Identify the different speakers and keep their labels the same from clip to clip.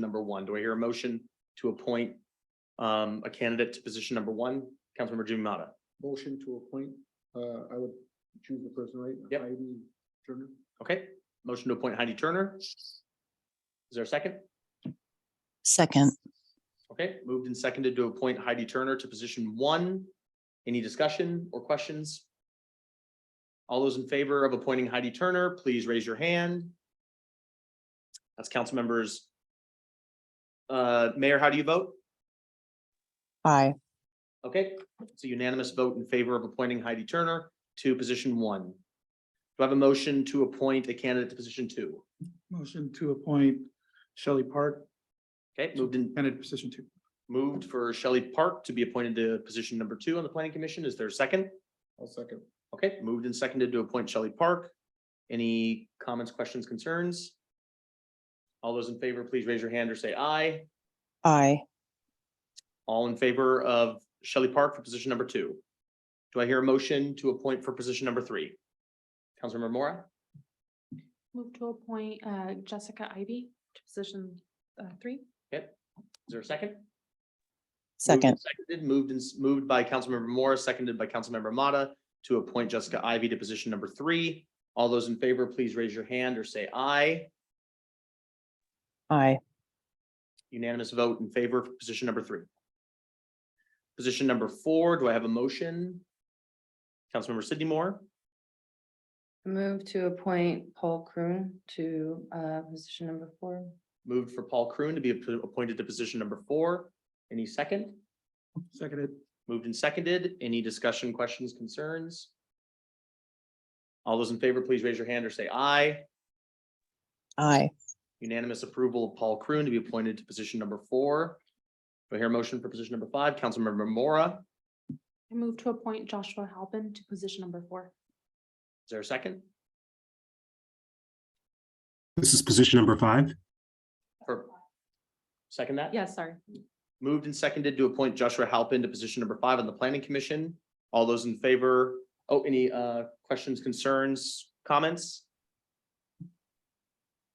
Speaker 1: number one. Do I hear a motion to appoint um, a candidate to position number one? Councilmember Jimmy Mata.
Speaker 2: Motion to appoint, uh, I would choose the person, right?
Speaker 1: Yep.
Speaker 2: Heidi Turner.
Speaker 1: Okay, motion to appoint Heidi Turner. Is there a second?
Speaker 3: Second,
Speaker 1: Okay, moved and seconded to appoint Heidi Turner to position one. Any discussion or questions? All those in favor of appointing Heidi Turner, please raise your hand. That's council members. Uh, Mayor, how do you vote?
Speaker 3: aye.
Speaker 1: Okay, it's a unanimous vote in favor of appointing Heidi Turner to position one. Do I have a motion to appoint a candidate to position two?
Speaker 2: Motion to appoint Shelley Park,
Speaker 1: Okay, moved and
Speaker 2: candidate position two.
Speaker 1: moved for Shelley Park to be appointed to position number two on the planning commission. Is there a second?
Speaker 2: I'll second.
Speaker 1: Okay, moved and seconded to appoint Shelley Park. Any comments, questions, concerns? All those in favor, please raise your hand or say aye.
Speaker 3: Aye.
Speaker 1: All in favor of Shelley Park for position number two. Do I hear a motion to appoint for position number three? Councilmember Mora?
Speaker 4: Move to appoint uh, Jessica Ivy to position uh, three.
Speaker 1: Is there a second? Moved and
Speaker 3: Second,
Speaker 1: Seconded, moved and s- moved by Councilmember Mora, seconded by Councilmember Mata to appoint Jessica Ivy to position number three. All those in favor, please raise your hand or say aye.
Speaker 3: aye.
Speaker 1: Unanimous vote in favor of position number three. Position number four, do I have a motion? Councilmember Sidney Moore,
Speaker 5: Move to appoint Paul Croon to uh position number four.
Speaker 1: moved for Paul Croon to be app- appointed to position number four. Any second?
Speaker 2: Seconded.
Speaker 1: Moved and seconded. Any discussion, questions, concerns? All those in favor, please raise your hand or say aye.
Speaker 3: Aye.
Speaker 1: Unanimous approval of Paul Croon to be appointed to position number four. Do I hear a motion for position number five? Councilmember Mora,
Speaker 4: I move to appoint Joshua Halpin to position number four.
Speaker 1: is there a second?
Speaker 6: This is position number five.
Speaker 1: Or- Second that?
Speaker 4: Yes, sorry.
Speaker 1: Moved and seconded to appoint Joshua Halpin to position number five on the planning commission. All those in favor? Oh, any uh questions, concerns, comments?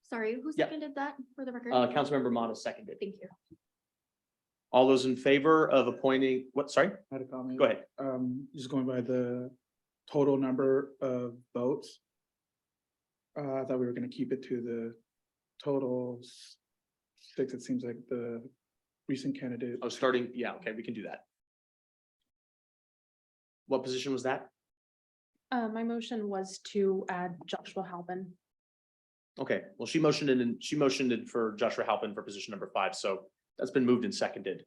Speaker 7: Sorry, who
Speaker 1: Yeah.
Speaker 7: seconded that for the record?
Speaker 1: Uh, Councilmember Mata seconded.
Speaker 7: Thank you.
Speaker 1: All those in favor of appointing, what, sorry,
Speaker 2: I Had a comment.
Speaker 1: go ahead.
Speaker 2: Um, just going by the total number of votes. Uh, I thought we were gonna keep it to the total s- six, it seems like the recent candidate.
Speaker 1: Oh, starting, yeah, okay, we can do that. What position was that?
Speaker 4: Uh, My motion was to add Joshua Halpin.
Speaker 1: Okay, well, she motioned it and she motioned it for Joshua Halpin for position number five, so that's been moved and seconded.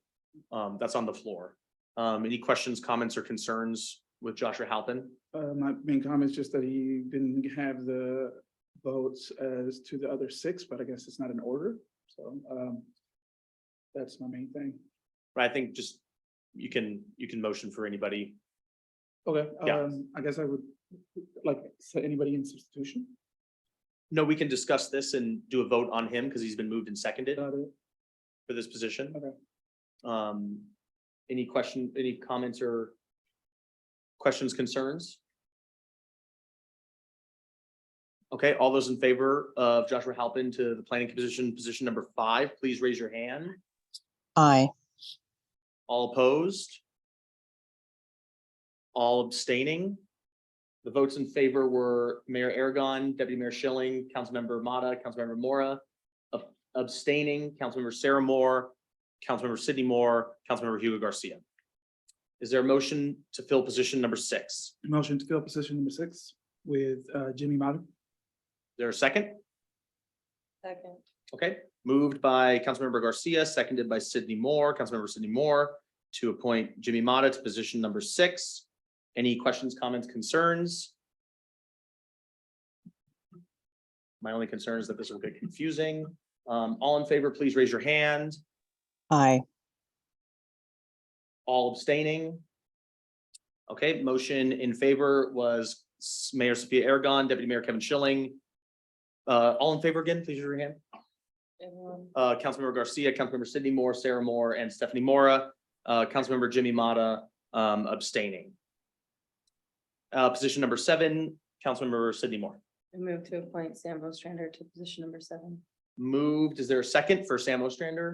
Speaker 1: Um, that's on the floor. Um, any questions, comments or concerns with Joshua Halpin?
Speaker 2: Uh, my main comment is just that he didn't have the votes as to the other six, but I guess it's not in order, so, um. That's my main thing.
Speaker 1: But I think just, you can, you can motion for anybody.
Speaker 2: Okay,
Speaker 1: Yeah.
Speaker 2: um, I guess I would, like, so anybody in substitution?
Speaker 1: No, we can discuss this and do a vote on him because he's been moved and seconded
Speaker 2: Got it.
Speaker 1: for this position.
Speaker 2: Okay.
Speaker 1: Um, any question, any comments or questions, concerns? Okay, all those in favor of Joshua Halpin to the planning commission, position number five, please raise your hand.
Speaker 3: Aye.
Speaker 1: All opposed? All abstaining? The votes in favor were Mayor Aragon, Deputy Mayor Schilling, Councilmember Mata, Councilmember Mora, ab- abstaining, Councilmember Sarah Moore, Councilmember Sidney Moore, Councilmember Hugo Garcia. Is there a motion to fill position number six? Is
Speaker 2: Motion to fill position number six with, uh, Jimmy Madu.
Speaker 1: there a second?
Speaker 5: Second.
Speaker 1: Okay, moved by Councilmember Garcia, seconded by Sidney Moore, Councilmember Sidney Moore to appoint Jimmy Mata to position number six. Any questions, comments, concerns? My only concern is that this will get confusing. Um, all in favor, please raise your hand.
Speaker 3: Aye.
Speaker 1: All abstaining? Okay, motion in favor was S- Mayor Sophia Aragon, Deputy Mayor Kevin Schilling. Uh, all in favor again, please raise your hand.
Speaker 5: Everyone.
Speaker 1: uh, Councilmember Garcia, Councilmember Sidney Moore, Sarah Moore, and Stephanie Mora, uh, Councilmember Jimmy Mata, um, abstaining. Uh, position number seven, Councilmember Sidney Moore.
Speaker 5: Move to appoint Sam Strander to position number seven.
Speaker 1: moved. Is there a second for Sam Ostrander?